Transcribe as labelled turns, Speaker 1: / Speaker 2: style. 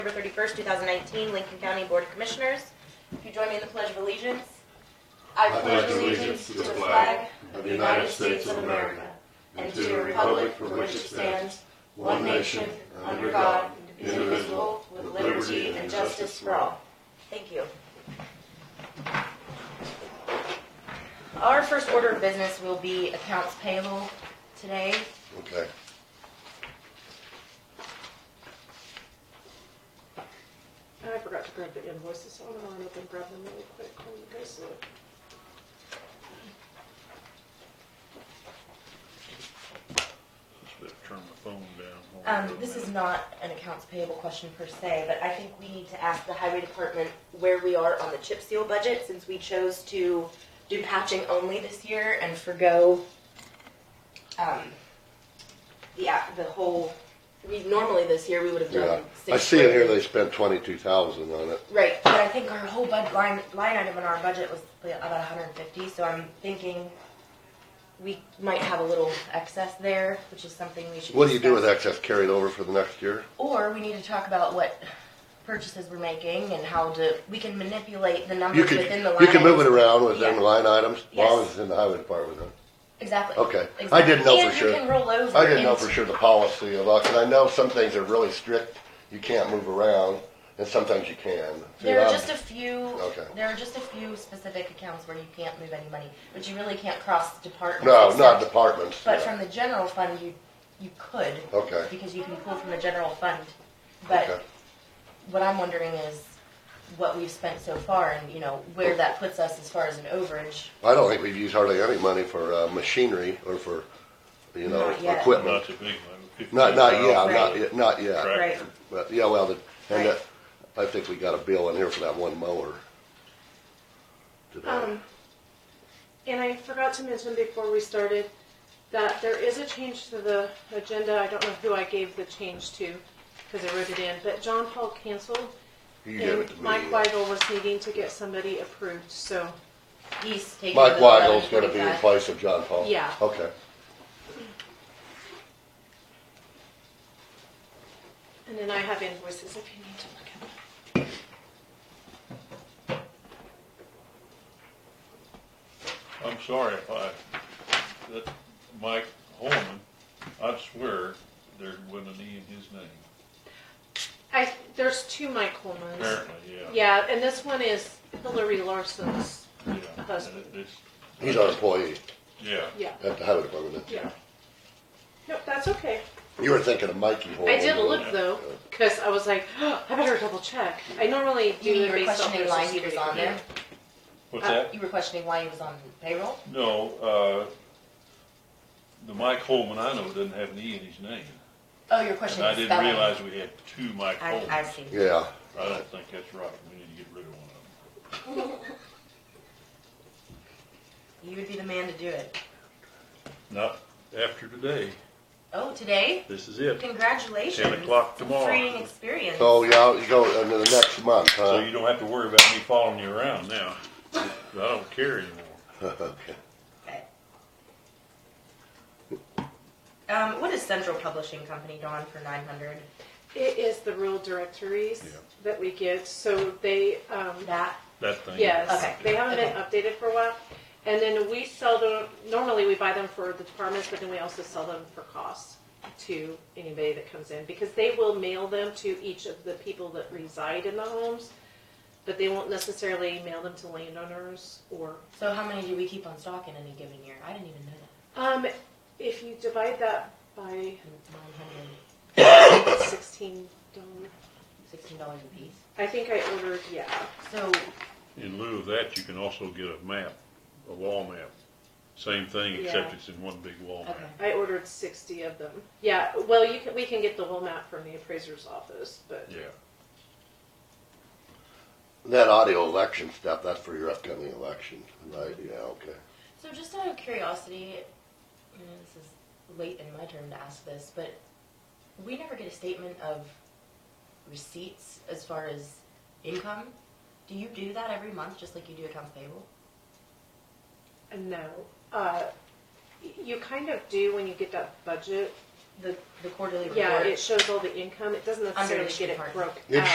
Speaker 1: October 31st, 2019, Lincoln County Board of Commissioners. If you join me in the Pledge of Allegiance. I
Speaker 2: pledge allegiance to the flag of the United States of America and to the republic for which it stands, one nation, under God, indivisible, with liberty and justice for all.
Speaker 1: Thank you. Our first order of business will be accounts payable today.
Speaker 2: Okay.
Speaker 3: I forgot to grab the invoices, so I'm gonna run up and grab them really quick when you guys look.
Speaker 4: Better turn the phone down.
Speaker 1: Um, this is not an accounts payable question per se, but I think we need to ask the highway department where we are on the chip seal budget, since we chose to do patching only this year and forego, um, the, act- the whole, we, normally this year, we would have
Speaker 2: Yeah,
Speaker 1: done six.
Speaker 2: I see in here
Speaker 1: grand.
Speaker 2: they spent twenty-two thousand on it.
Speaker 1: Right, but I think our whole bud line, line item in our budget was about hundred and fifty, so I'm thinking we might have a little excess there, which is something we should.
Speaker 2: What do you do
Speaker 1: discuss.
Speaker 2: with excess carried over for the next year?
Speaker 1: Or we need to talk about what purchases we're making and how to, we can manipulate the
Speaker 2: You
Speaker 1: numbers
Speaker 2: could,
Speaker 1: within the line.
Speaker 2: you can move it
Speaker 1: items.
Speaker 2: around within
Speaker 1: Yeah.
Speaker 2: the line items, as long
Speaker 1: Yes.
Speaker 2: as it's in the highway department. huh?
Speaker 1: Exactly.
Speaker 2: Okay. I
Speaker 1: Exactly.
Speaker 2: didn't know for
Speaker 1: And
Speaker 2: sure.
Speaker 1: you can roll over.
Speaker 2: I didn't know for
Speaker 1: into-
Speaker 2: sure the policy of, and I know some things are really strict, you can't move around, and sometimes you can. See,
Speaker 1: There are
Speaker 2: I'm-
Speaker 1: just a few,
Speaker 2: Okay.
Speaker 1: there are just a few specific accounts where you can't move any money, but you really can't cross departments.
Speaker 2: No, not
Speaker 1: except-
Speaker 2: departments.
Speaker 1: But
Speaker 2: yeah.
Speaker 1: from the general fund, you, you could.
Speaker 2: Okay.
Speaker 1: Because you can pull from the general fund. But
Speaker 2: Okay.
Speaker 1: what I'm wondering is what we've spent so far and, you know, where that puts us as far as an overage.
Speaker 2: I don't think we've used hardly any money for uh, machinery or for, you know,
Speaker 1: Not yet.
Speaker 2: equipment.
Speaker 4: Not to me, like.
Speaker 2: Not, not yet, not
Speaker 1: Right.
Speaker 2: yet, not yet.
Speaker 4: Right.
Speaker 2: But, yeah, well, the-
Speaker 1: Right.
Speaker 2: and that- I think we got a bill in here for that one mower. today.
Speaker 3: Um, and I forgot to mention before we started that there is a change to the agenda. I don't know who I gave the change to, because I wrote it in, but John Paul canceled.
Speaker 2: You gave it uh,
Speaker 3: And
Speaker 2: to me.
Speaker 3: Mike Weigel was needing to get somebody approved, so,
Speaker 1: He's taking.
Speaker 2: Mike
Speaker 1: the
Speaker 2: Weigel's gonna be in
Speaker 1: 11.45.
Speaker 2: place of John Paul.
Speaker 3: Yeah.
Speaker 2: Okay.
Speaker 3: and then I have invoices if you need to look at them.
Speaker 4: I'm sorry if I, that Mike Holman, I swear there wasn't an E in his name.
Speaker 3: I, there's two Mike Holmans.
Speaker 4: Apparently, yeah.
Speaker 3: Yeah, and this one is Hillary Larson's,
Speaker 4: Yeah.
Speaker 3: Husband.
Speaker 4: And it- it's-
Speaker 2: He's our employee
Speaker 4: Yeah.
Speaker 1: Uh,
Speaker 3: yeah,
Speaker 2: at the highway department.
Speaker 3: yeah. Nope, that's okay.
Speaker 2: You were thinking of Mikey Horn.
Speaker 3: I did
Speaker 2: weren't
Speaker 3: look
Speaker 2: you?
Speaker 3: though, because I was like, I better double check. I normally do
Speaker 1: You mean
Speaker 3: it
Speaker 1: you were
Speaker 3: based off
Speaker 1: questioning
Speaker 3: their
Speaker 1: why
Speaker 3: social
Speaker 1: he was
Speaker 3: security.
Speaker 1: on there?
Speaker 4: What's that?
Speaker 1: You were questioning why he was on payroll?
Speaker 4: No, uh, the Mike Holman I know doesn't have an E in his name.
Speaker 1: Oh, you're
Speaker 4: And
Speaker 1: questioning
Speaker 4: I
Speaker 1: the
Speaker 4: didn't
Speaker 1: spelling.
Speaker 4: realize we had two Mike
Speaker 1: I, I
Speaker 4: Holmans.
Speaker 1: see.
Speaker 2: Yeah,
Speaker 4: I don't think that's right. We need to get rid of one of them.
Speaker 1: You would be the man to do it.
Speaker 4: Not after today.
Speaker 1: Oh, today?
Speaker 4: This is it.
Speaker 1: Congratulations.
Speaker 4: 10 o'clock tomorrow.
Speaker 1: Freeing experience.
Speaker 2: so, yeah, you go into the next month,
Speaker 4: So
Speaker 2: huh?
Speaker 4: you don't have to worry about me following you around now. I don't care anymore.
Speaker 2: Okay.
Speaker 1: Okay. Um, what is Central Publishing Company, Dawn, for nine hundred?
Speaker 3: It is the rural directories
Speaker 4: Yeah.
Speaker 3: that we get, so they, um,
Speaker 1: That,
Speaker 4: That thing.
Speaker 3: yes,
Speaker 1: Okay.
Speaker 3: they haven't been updated for a while. And then we sell them. Normally, we buy them for the departments, but then we also sell them for costs to anybody that comes in because they will mail them to each of the people that reside in the homes, but they won't necessarily mail them to landowners or
Speaker 1: so how many do we keep on stock in any given year? I didn't even know
Speaker 3: Um, if you divide that by
Speaker 1: that. Nine hundred,
Speaker 3: sixteen dollars,
Speaker 1: sixteen dollars a piece.
Speaker 3: I think I ordered, yeah,
Speaker 1: So,
Speaker 4: In lieu of that, you can also get a map, a wall map. Same thing, except
Speaker 3: Yeah.
Speaker 4: it's in one big wall
Speaker 1: okay,
Speaker 4: map.
Speaker 3: I ordered sixty of them. Yeah, well, you can, we can get the whole map from the appraiser's office, but
Speaker 4: Yeah.
Speaker 2: That audio election stuff, that's for your upcoming election, right? Yeah, okay.
Speaker 1: so just out of curiosity, I know this is late in my turn to ask this, but we never get a statement of receipts as far as income. Do you do that every month, just like you do accounts payable?
Speaker 3: no. Uh, you kind of do when you get that budget.
Speaker 1: The, the quarterly report?
Speaker 3: Yeah, it shows all the income. It doesn't necessarily
Speaker 1: each
Speaker 3: get it
Speaker 1: department.
Speaker 3: broke
Speaker 2: It
Speaker 3: out.